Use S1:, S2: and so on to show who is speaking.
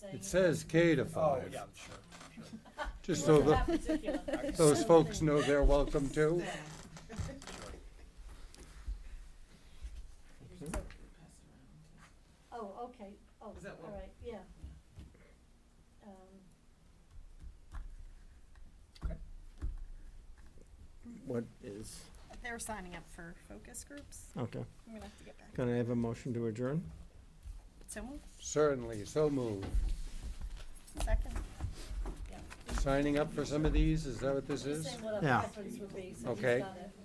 S1: saying.
S2: It says K to
S3: Oh,
S2: five,
S3: yeah, sure, sure.
S2: just
S1: Well,
S2: so the,
S1: that particular-
S2: those folks know they're welcome too.
S1: Oh, okay, oh,
S4: Is that
S1: all
S4: what-
S1: right, yeah. Um,
S5: What is,
S6: They're signing up for focus groups.
S5: okay.
S6: I'm gonna have to get back.
S5: Can I have a motion to adjourn?
S6: So moved.
S2: Certainly, so moved.
S6: Second.
S2: Signing up for some of these, is that what this
S1: Just
S2: is?
S1: saying what our
S5: Yeah.
S1: preference would be, so he's
S2: Okay.
S1: done it.